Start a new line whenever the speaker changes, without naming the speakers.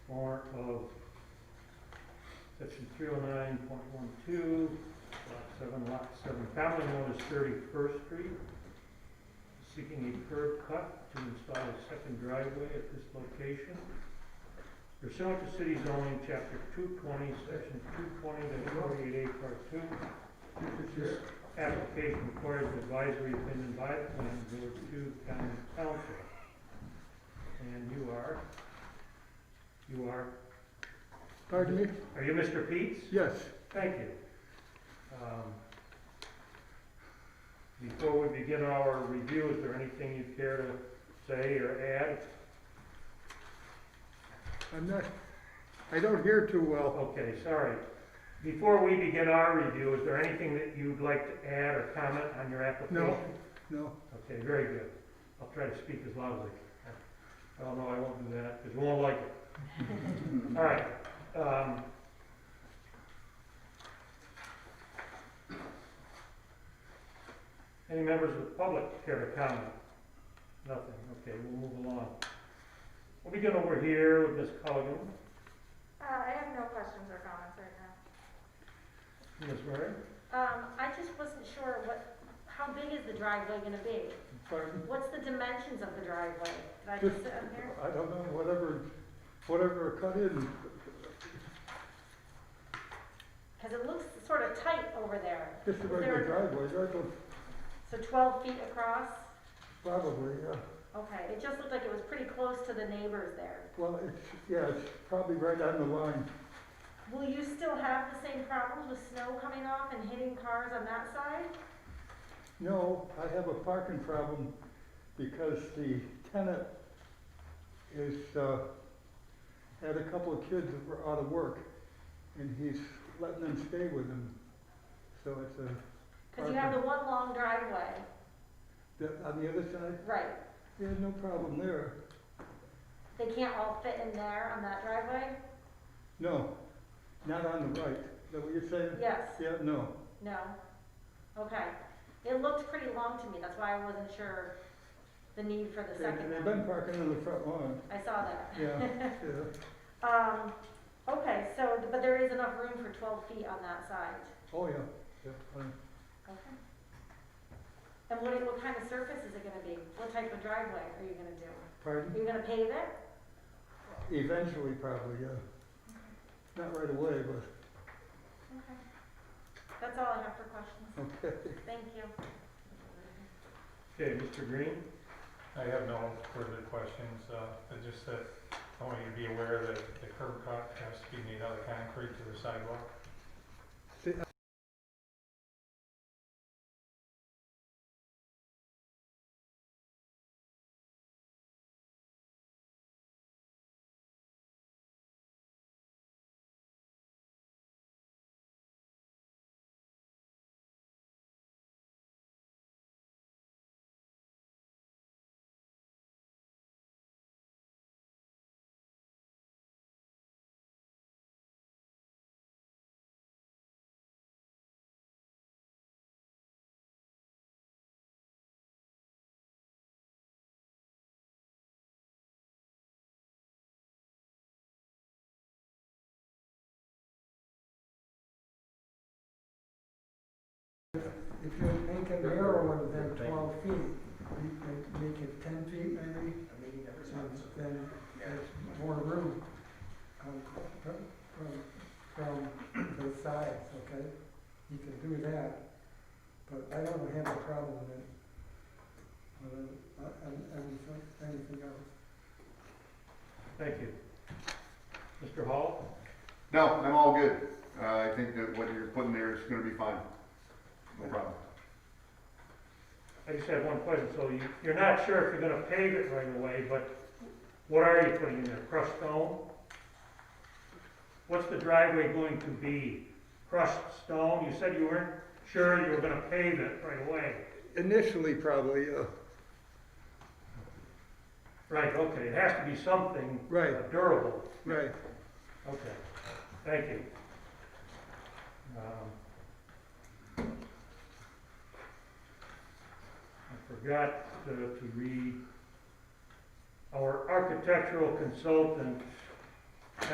three oh nine point one two, lot seven, lot seven, family known as Thirty-first Street. Seeking a curb cut to install a second driveway at this location. Pursuant to city zoning, chapter two twenty, section two twenty, forty-eight A, part two. This application requires an advisory opinion by the planning board to county council. And you are? You are,
Pardon me?
are you Mr. Peets?
Yes.
Thank you. Um, Before we begin our review, is there anything you care to say or add?
I'm not, I don't hear too well.
Okay, sorry. Before we begin our review, is there anything that you'd like to add or comment on your application?
No,
Okay, very good. I'll try to speak as loud as I can. Oh, no, I won't do that, because you won't like it. All right. um, Any members of the public care to comment? Nothing, okay, we'll move along. We'll begin over here with Ms. Culligan,
Uh, I have no questions or comments right now.
Ms. Murray.
Um, I just wasn't sure what, how big is the driveway gonna be?
pardon?
What's the dimensions of the driveway? Did I just sit on here?
I don't know, whatever, whatever cut in.
Cause it looks sort of tight over there.
Just a
Is
regular
there-
driveway, right,
So twelve feet across?
probably, uh, yeah.
Okay, it just looked like it was pretty close to the neighbors there.
Well, it's, yeah, it's probably right on the line.
Will you still have the same problems with snow coming off and hitting cars on that side?
No, I have a parking problem because the tenant is, uh, had a couple of kids that were out of work and he's letting them stay with him. So it's a,
Cause you have the one long driveway.
that- on the other side,
Right.
yeah, no problem there.
They can't all fit in there on that driveway?
No, not on the right. Is that what you're saying?
Yes.
Yeah, no.
No? Okay. It looked pretty long to me, that's why I wasn't sure the need for the
They-
second
They've
one.
been parking on the front lawn,
I saw that.
yeah, yeah.
Um, okay, so, but there is enough room for twelve feet on that side.
Oh, yeah, yeah, um, fine.
Okay. And what, what kind of surface is it gonna be? What type of driveway are you gonna do?
Pardon?
Are you gonna pave it?
Eventually, probably, yeah. Not right away, but,
Okay. That's all I have for questions.
okay.
Thank you.
Okay, Mr. Green?
I have no further questions, uh, I just said, I want you to be aware that the curb cut has to be made out of concrete to the sidewalk.
If you make it narrower than twelve feet, you can make it ten feet maybe, and then there's more room um, from, from, from the sides, okay? You can do that, but I don't have a problem with it. With it, uh, and, and so- anything else.
Thank you. Mr. Hall?
No, I'm all good. Uh, I think that what you're putting there is gonna be fine. No problem.
I just had one question, so you, you're not sure if you're gonna pave it right away, but what are you putting in there, crushed stone? What's the driveway going to be, crushed stone? You said you weren't sure you were gonna pave it right away.
Initially, probably, uh,
Right, okay, it has to be something
Right.
uh, durable.
right.
Okay, thank you. Um, I forgot uh, to read, our architectural consultant